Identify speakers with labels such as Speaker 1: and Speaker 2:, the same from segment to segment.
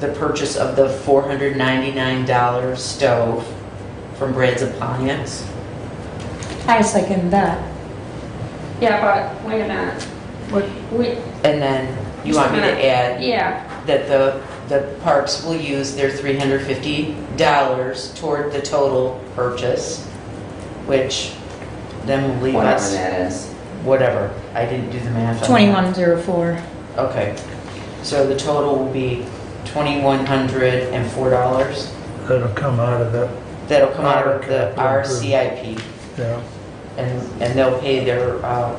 Speaker 1: the purchase of the $499 stove from Brad's Appliance.
Speaker 2: I second that.
Speaker 3: Yeah, but wait a minute. We,
Speaker 1: And then you want me to add
Speaker 3: yeah,
Speaker 1: that the, the parks will use their $350 toward the total purchase, which then will leave
Speaker 4: whatever
Speaker 1: us,
Speaker 4: that is.
Speaker 1: whatever. I didn't do the math on that.
Speaker 2: 2104.
Speaker 1: Okay, so the total will be $2,104.
Speaker 5: That'll come out of that,
Speaker 1: That'll come out of the
Speaker 5: Our
Speaker 1: RCIP,
Speaker 5: yeah.
Speaker 1: and, and they'll pay their, uh,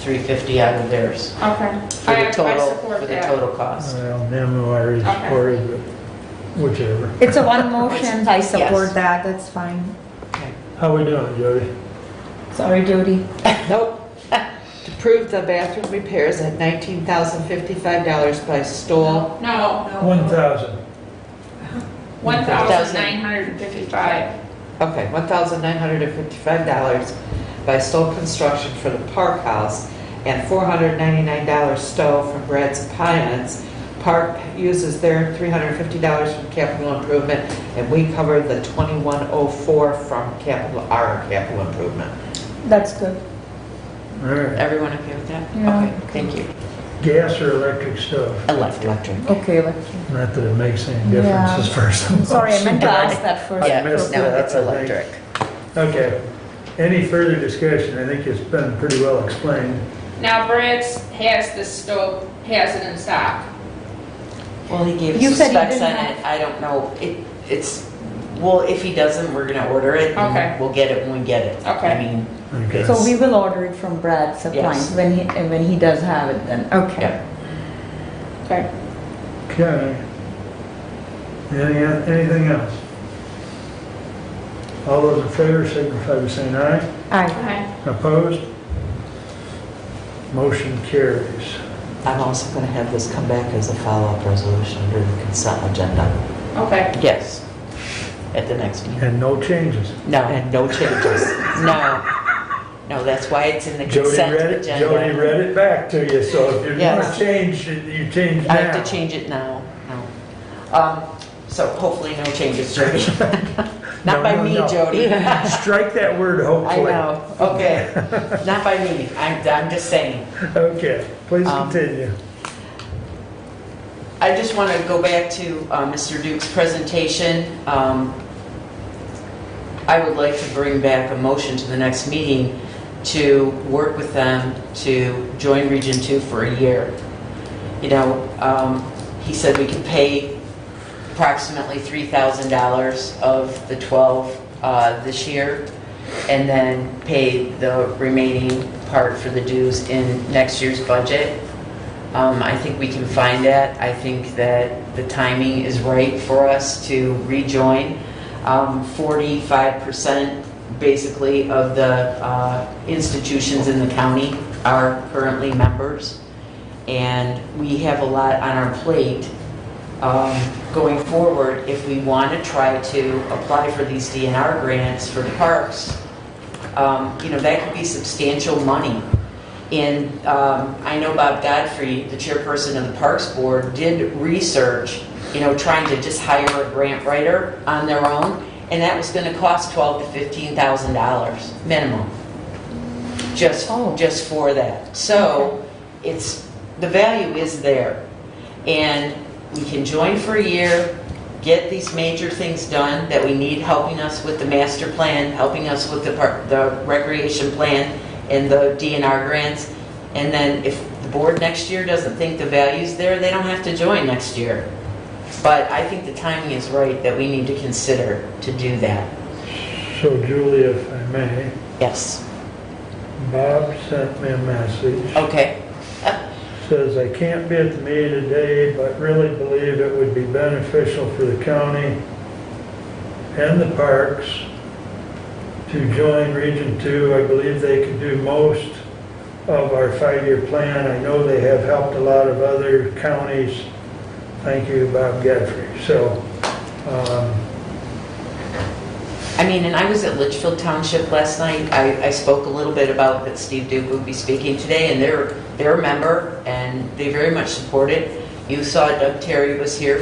Speaker 1: 350 out of theirs
Speaker 3: okay. I
Speaker 1: for
Speaker 3: I
Speaker 1: the total,
Speaker 3: support
Speaker 1: for the
Speaker 3: that.
Speaker 1: total cost.
Speaker 5: Well, Nemo, I already
Speaker 3: Okay.
Speaker 5: supported it, whichever.
Speaker 2: It's a one motion, I
Speaker 1: Yes.
Speaker 2: support that, that's fine.
Speaker 5: How we doing, Jody?
Speaker 2: Sorry, Jody.
Speaker 6: Nope. To prove the bathroom repairs at $19,055 by Stoll.
Speaker 3: No,
Speaker 5: One thousand.
Speaker 3: one thousand nine hundred and fifty-five.
Speaker 6: Okay, $1,955 by Stoll Construction for the park house and $499 Stowe from Brad's Appliance. Park uses their $350 from capital improvement and we cover the 2104 from capital, our capital improvement.
Speaker 2: That's good.
Speaker 5: All right,
Speaker 1: Everyone okay with that?
Speaker 2: Yeah.
Speaker 1: Okay, thank you.
Speaker 5: gas or electric stove?
Speaker 1: Electric.
Speaker 2: Okay, like,
Speaker 5: Not that it makes any difference
Speaker 2: Yeah.
Speaker 5: as far as. I'm
Speaker 2: sorry, I meant to
Speaker 1: Right.
Speaker 2: ask that first.
Speaker 1: Yeah,
Speaker 5: I
Speaker 1: no,
Speaker 5: missed that,
Speaker 1: it's
Speaker 5: I think.
Speaker 1: electric.
Speaker 5: Okay, any further discussion? I think it's been pretty well explained.
Speaker 3: Now Brad's has the stove, has it in stock.
Speaker 1: Well, he gave
Speaker 2: You
Speaker 1: us the
Speaker 2: said he
Speaker 1: specs on
Speaker 2: didn't
Speaker 1: it, I don't know, it, it's, well, if he doesn't, we're gonna order it. and
Speaker 3: Okay.
Speaker 1: We'll get it when we get it.
Speaker 3: Okay.
Speaker 1: I mean,
Speaker 5: Okay.
Speaker 2: So we will order it from Brad's appliance
Speaker 1: Yes.
Speaker 2: when he, uh, when he does have it then, okay.
Speaker 1: yeah.
Speaker 3: Okay.
Speaker 5: Okay. Any, anything else? All those in favor signify by saying aye.
Speaker 2: Aye.
Speaker 3: Okay.
Speaker 5: Opposed? Motion carries.
Speaker 6: I'm also going to have this come back as a follow-up resolution under the consent agenda.
Speaker 3: Okay.
Speaker 1: Yes. At the next meeting.
Speaker 5: And no changes.
Speaker 1: No,
Speaker 6: And no changes.
Speaker 1: no. No, that's why it's in the
Speaker 5: Jody
Speaker 1: consent
Speaker 5: read it,
Speaker 1: agenda.
Speaker 5: Jody read it back to you, so if you want
Speaker 1: Yes.
Speaker 5: to change, it, you change now.
Speaker 1: I have to change it now, no. Um, so hopefully no changes, Jody.
Speaker 5: No,
Speaker 1: Not by
Speaker 5: no,
Speaker 1: me,
Speaker 5: no.
Speaker 1: Jody. I
Speaker 5: Strike that word hopefully.
Speaker 1: know, okay. Not by me, I'm, I'm just saying.
Speaker 5: Okay, please
Speaker 1: Um,
Speaker 5: continue.
Speaker 1: I just want to go back to uh, Mr. Duke's presentation. Um, I would like to bring back a motion to the next meeting to work with them to join Region 2 for a year. You know, um, he said we could pay approximately $3,000 of the 12 uh, this year, and then pay the remaining part for the dues in next year's budget. Um, I think we can find that. I think that the timing is right for us to rejoin. Um, 45% basically of the uh, institutions in the county are currently members. And we have a lot on our plate um, going forward if we want to try to apply for these DNR grants for the parks. Um, You know, that could be substantial money. And um, I know Bob Godfrey, the chairperson of the Parks Board, did research, you know, trying to just hire a grant writer on their own, and that was going to cost twelve to $15,000 minimum, just,
Speaker 2: Oh.
Speaker 1: just for that. So it's, the value is there. And we can join for a year, get these major things done that we need, helping us with the master plan, helping us with the par- the recreation plan and the DNR grants. And then if the board next year doesn't think the value's there, they don't have to join next year. But I think the timing is right that we need to consider to do that.
Speaker 5: So Julie, if I may,
Speaker 1: Yes.
Speaker 5: Bob sent me a message,
Speaker 1: Okay.
Speaker 5: says, "I can't be at the meeting today, but really believe it would be beneficial for the county and the parks to join Region Two. I believe they could do most of our five-year plan. I know they have helped a lot of other counties. Thank you, Bob Godfrey." So, um,
Speaker 1: I mean, and I was at Litchfield Township last night. I, I spoke a little bit about that Steve Duke would be speaking today, and they're, they're a member, and they very much support it. You saw Doug Terry was here